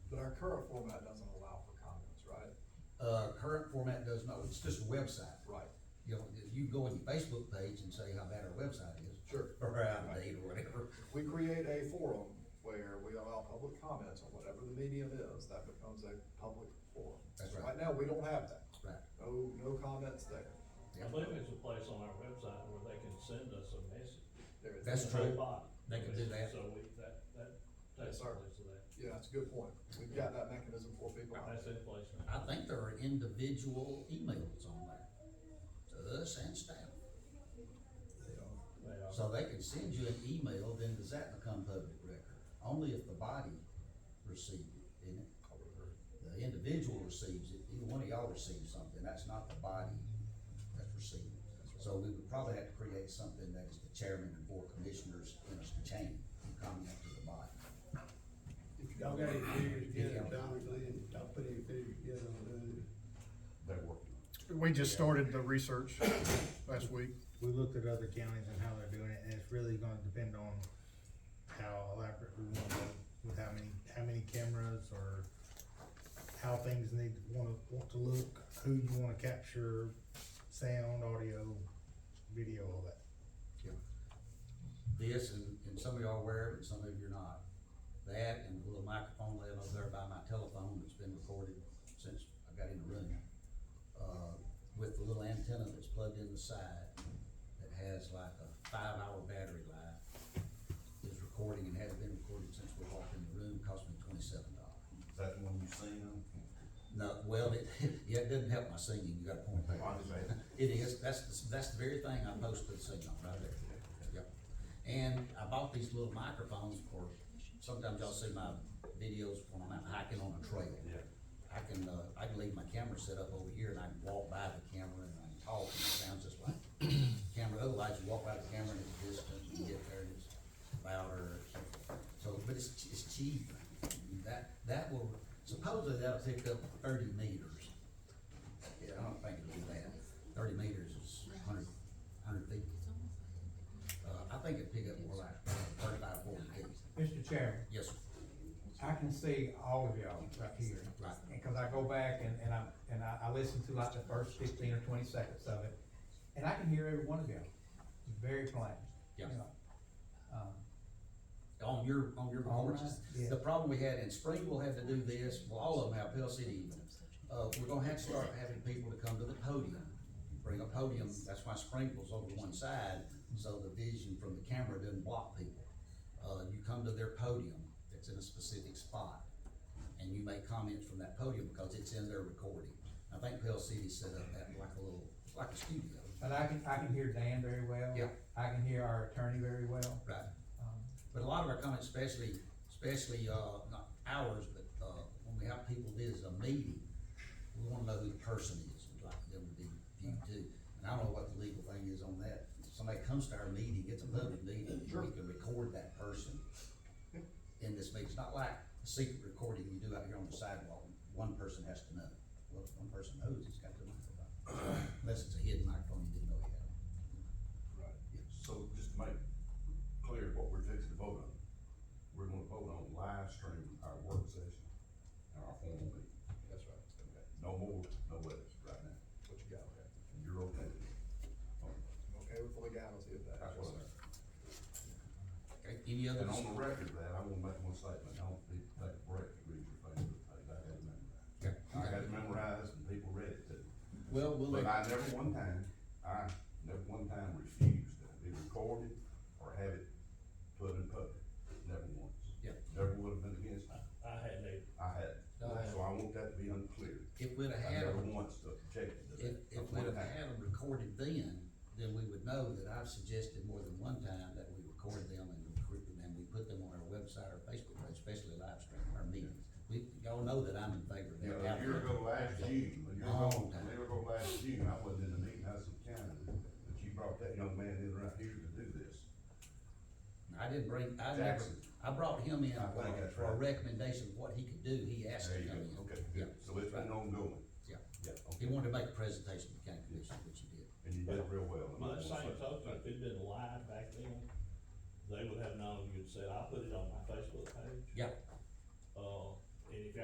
current format doesn't allow for comments, right? Uh, current format does not, it's just a website. Right. You know, if you go on your Facebook page and say how bad our website is. Sure. Or out of date or whatever. We create a forum where we allow public comments on whatever the medium is, that becomes a public forum. That's right. Right now, we don't have that. Right. No, no comments there. Yeah. I believe there's a place on our website where they can send us a message. There is. That's The whole true. body. They can do that. So we, that, that, Yes, that's sir. our, that's Yeah, that's a good point. We've got that mechanism for people. in place now. I think there are individual emails on there, to us and staff. They are. So they can send you an email, then does that become public record? Only if the body received it, isn't it? The individual receives it, either one of y'all receives something, that's not the body that's receiving it. So we would probably have to create something that is the chairman and board commissioners in a chain, who comment to the body. If y'all got any figures together, Don, Glenn, y'all put any figures together on doing They're working. We just started the research last week. we looked at other counties and how they're doing it, and it's really gonna depend on how elaborate we want to, go with how many, how many cameras or how things need, wanna, want to look, who you wanna capture, sound, audio, video, all that. This, and, and some of y'all are aware of it, and some of you're not. That and the little microphone laying over there by my telephone that's been recorded since I got in the room. Uh, with the little antenna that's plugged in the side that has like a five-hour battery life. Is recording and has been recorded since we walked in the room, cost me twenty-seven dollars. Is that the one you seen them? No, well, it, yeah, it doesn't help my singing, you got a point there. It is, that's, the- that's the very thing I posted the signal right there. Yep. And I bought these little microphones for, sometimes y'all see my videos when I'm out hiking on a trail. Yeah. I can, uh, I can leave my camera set up over here and I can walk by the camera and I can talk and it sounds just like the camera. Otherwise, you walk by the camera and it's distant, you get there and it's louder. So, but it's, ch- it's cheap. That, that will, supposedly that'll pick up thirty meters. Yeah, I don't think it'll do that. Thirty meters is hundred, hundred feet. Uh, I think it'd pick up more like thirty-five, forty feet. Mr. Chairman, Yes, sir. I can see all of y'all right here. Right. And cause I go back and, and I, and I, I listen to like the first fifteen or twenty seconds of it, and I can hear every one of y'all, very plain. Yeah. you know. Um, on your, on your All reports. right, yeah. The problem we had in spring, we'll have to do this, well, all of them have, Pell City even. Uh, we're gonna have to start having people to come to the podium, bring a podium, that's why sprinkles over to one side, so the vision from the camera doesn't block people. Uh, you come to their podium, that's in a specific spot, and you make comments from that podium because it's in their recording. I think Pell City set up that like a little, like a studio, But I can, I can hear Dan very well. Yeah. I can hear our attorney very well. right? Um, But a lot of our comments, especially, especially, uh, not ours, but, uh, when we have people visit a meeting, we wanna know who the person is, we'd like them to be viewed too. And I don't know what the legal thing is on that, If somebody comes to our meeting, it's a public meeting, we can record that person in this meeting, it's not like a secret recording you do out here on the sidewalk, one person has to know. Well, if one person knows, it's got the microphone, unless it's a hidden microphone you didn't know you had. Right. So just to make clear what we're fixing to vote on, we're gonna vote on live stream our work session and our formal meeting. That's right. Okay. No more, no less right now. What you got, okay? And you're okay with it? Okay, I'm okay with the legality of that. That's what I. Okay, any other? And on the record of that, I wanna make one statement, I want people to take a break to read your Facebook page, I had it memorized. Okay. I had it memorized and people read it too. Well, we'll. But I never one time, I never one time refused to be recorded or have it put in public, never once. Yeah. Never would have been against it, I had a, I had, it. No, I- so I want that to be unclear. If we'd have I had. never a- once objected to If, that. if Not we'd one have time. had them recorded then, then we would know that I've suggested more than one time that we record them and recruit them, and we put them on our website or Facebook page, especially live stream, our meetings. We, y'all know that I'm in favor of You know, that. a year ago last June, a year Long ago, time. a year ago last June, I wasn't in the meeting, I was in Canada, but you brought that young man in right here to do this. I didn't bring, I never, Jackson. I brought him in I think that's for a right. recommendation of what he could do, he asked There to you come in. go, okay, Yeah, good, so it's been ongoing. Yeah. Yeah, he okay, wanted to make a presentation to county commission, which he did. and you did it real well. I'm by not the gonna same say- token, if it'd been live back then, they would have known, you'd said, I put it on my Facebook page. Yeah, Uh, and if